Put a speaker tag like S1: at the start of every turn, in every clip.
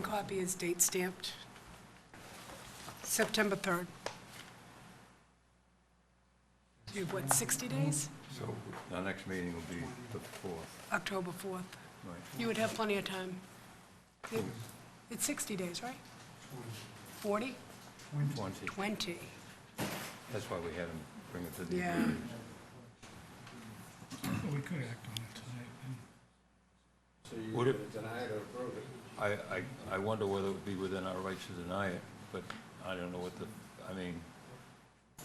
S1: copy is date stamped, September 3rd. You have, what, 60 days?
S2: So our next meeting will be the fourth,
S1: October 4th.
S2: right?
S1: You would have plenty of time. It- It's 60 days, right? 40?
S2: Twenty.
S1: 20.
S2: That's why we had him bring it to the
S1: Yeah.
S2: meeting.
S3: Well, We could act on it tonight. and
S4: So you're
S2: Would
S4: going
S2: it-
S4: to deny it or approve it?
S2: I, I, I wonder whether it would be within our rights to deny it, but I don't know what the, I mean,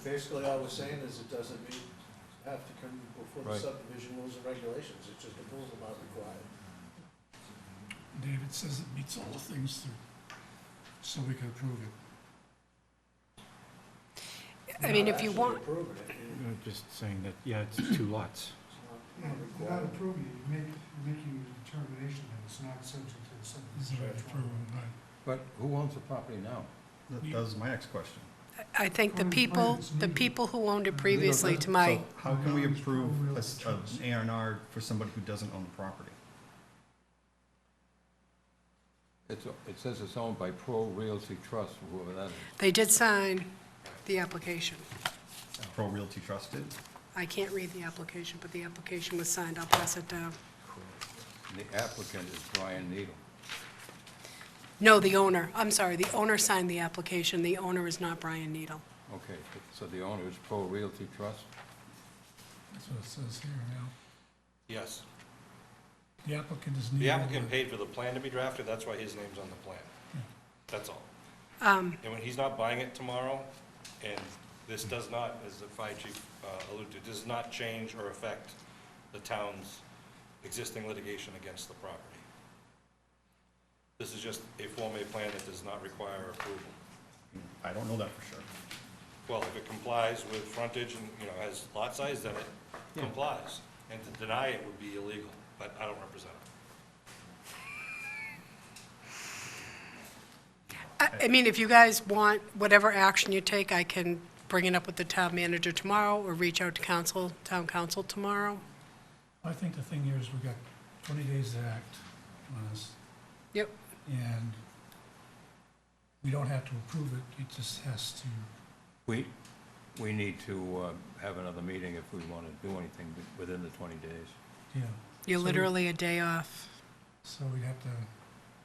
S4: Basically, all we're saying is it doesn't meet, have to come before the
S2: Right.
S4: subdivision rules and regulations, it's just the rules about required.
S3: David says it meets all the things through, so we can approve it.
S1: I mean, if you want,
S4: Actually approving it, you-
S5: I'm just saying that, yeah, it's two
S4: it's
S5: lots.
S6: Yeah,
S4: not
S6: Without
S4: required.
S6: approving it, you're making, you're making a determination that it's not subject to the
S3: This is
S6: subdivision.
S3: what I approve
S6: control.
S3: of, right?
S2: but who owns the property now?
S5: That that was my next question.
S1: I think the people, the people who owned it previously to my,
S5: So how can we approve a s- an A and R for somebody who doesn't own the property?
S2: It's, it says it's owned by Pro Realty Trust, whoever that is.
S1: they did sign the application.
S5: Pro Realty Trust did?
S1: I can't read the application, but the application was signed. I'll pass it down.
S2: And the applicant is Brian Needle.
S1: No, the owner, I'm sorry, the owner signed the application, the owner is not Brian Needle.
S2: Okay, so the owner is Pro Realty Trust?
S3: That's what it says here now.
S7: Yes.
S3: The applicant is needed.
S7: The applicant paid for the plan to be drafted, that's why his name's on the plan. That's all. And when he's not buying it tomorrow, and this does not, as the fire chief uh, alluded to, does not change or affect the town's existing litigation against the property. This is just a Form A plan that does not require approval.
S5: I don't know that for sure.
S7: Well, if it complies with frontage and, you know, has lot size, then it complies. And to deny it would be illegal, but I don't represent him.
S1: I I mean, if you guys want whatever action you take, I can bring it up with the town manager tomorrow or reach out to council, town council tomorrow.
S3: I think the thing here is we've got twenty days to act on this,
S1: Yep.
S3: and we don't have to approve it, it just has to,
S2: We, we need to uh, have another meeting if we want to do anything within the 20 days.
S3: yeah.
S1: You're
S3: So we-
S1: literally a day off,
S3: So we'd have to,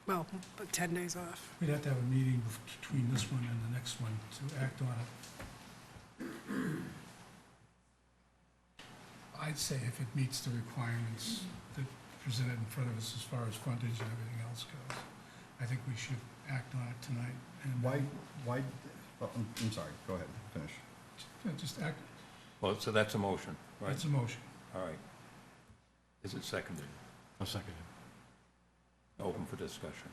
S1: well, but 10 days off.
S3: we'd have to have a meeting bef- between this one and the next one to act on it. I'd say if it meets the requirements that presented in front of us as far as frontage and everything else goes, I think we should act on it tonight. and-
S5: Why, why, oh, I'm, I'm sorry, go ahead, finish.
S3: Yeah, Just act,
S2: Well, so that's a motion, right?
S3: it's a motion.
S2: All right. Is it seconded?
S5: I'll second
S2: Open for discussion.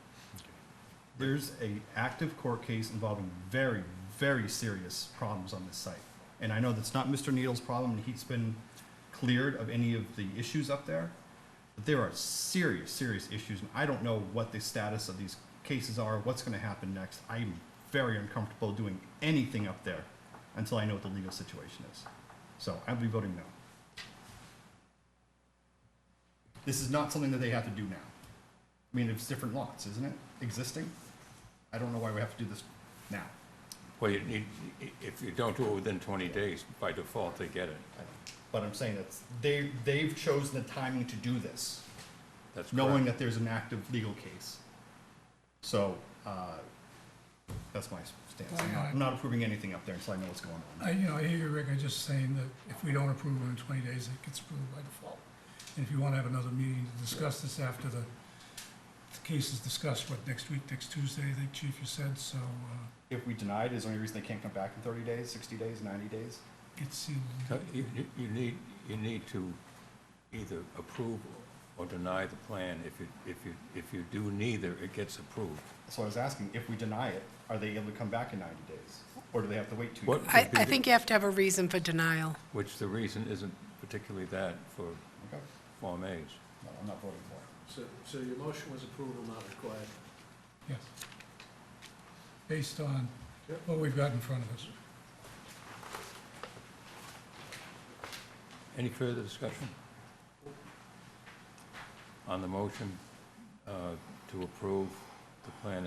S5: There's a active court case involving very, very serious problems on this site. And I know that's not Mr. Needle's problem, and he's been cleared of any of the issues up there. But there are serious, serious issues, and I don't know what the status of these cases are, what's gonna happen next. I'm very uncomfortable doing anything up there until I know what the legal situation is. So I'll be voting no. This is not something that they have to do now. I mean, it's different lots, isn't it, existing? I don't know why we have to do this now.
S2: Well, you need, if you don't do it within 20 days, by default, they get it.
S5: But I'm saying that's, they, they've chosen the timing to do this,
S2: That's
S5: knowing
S2: correct.
S5: that there's an active legal case. So, uh, that's my stance. I'm not, I'm not approving anything up there until I know what's going on.
S3: I, you know, I hear you, Rick, I'm just saying that if we don't approve it in twenty days, it gets approved by default. And if you wanna have another meeting to discuss this after the, the case is discussed, what, next week, next Tuesday, I think, Chief, you said, so, uh,
S5: If we deny it, is there any reason they can't come back in thirty days, sixty days, ninety days?
S3: it's, in-
S2: So You, you- you need, you need to either approve or deny the plan. If you, if you, if you do neither, it gets approved.
S5: So I was asking, if we deny it, are they able to come back in ninety days? Or do they have to wait two
S2: What-
S5: years?
S1: I, I think you have to have a reason for denial.
S2: Which the reason isn't particularly that for
S5: Okay,
S2: Form As.
S5: no, I'm not voting for it.
S4: So, so your motion was approval not required.
S3: yes. Based on
S4: Yep.
S3: what we've got in front of us.
S2: Any further discussion? On the motion uh, to approve the plan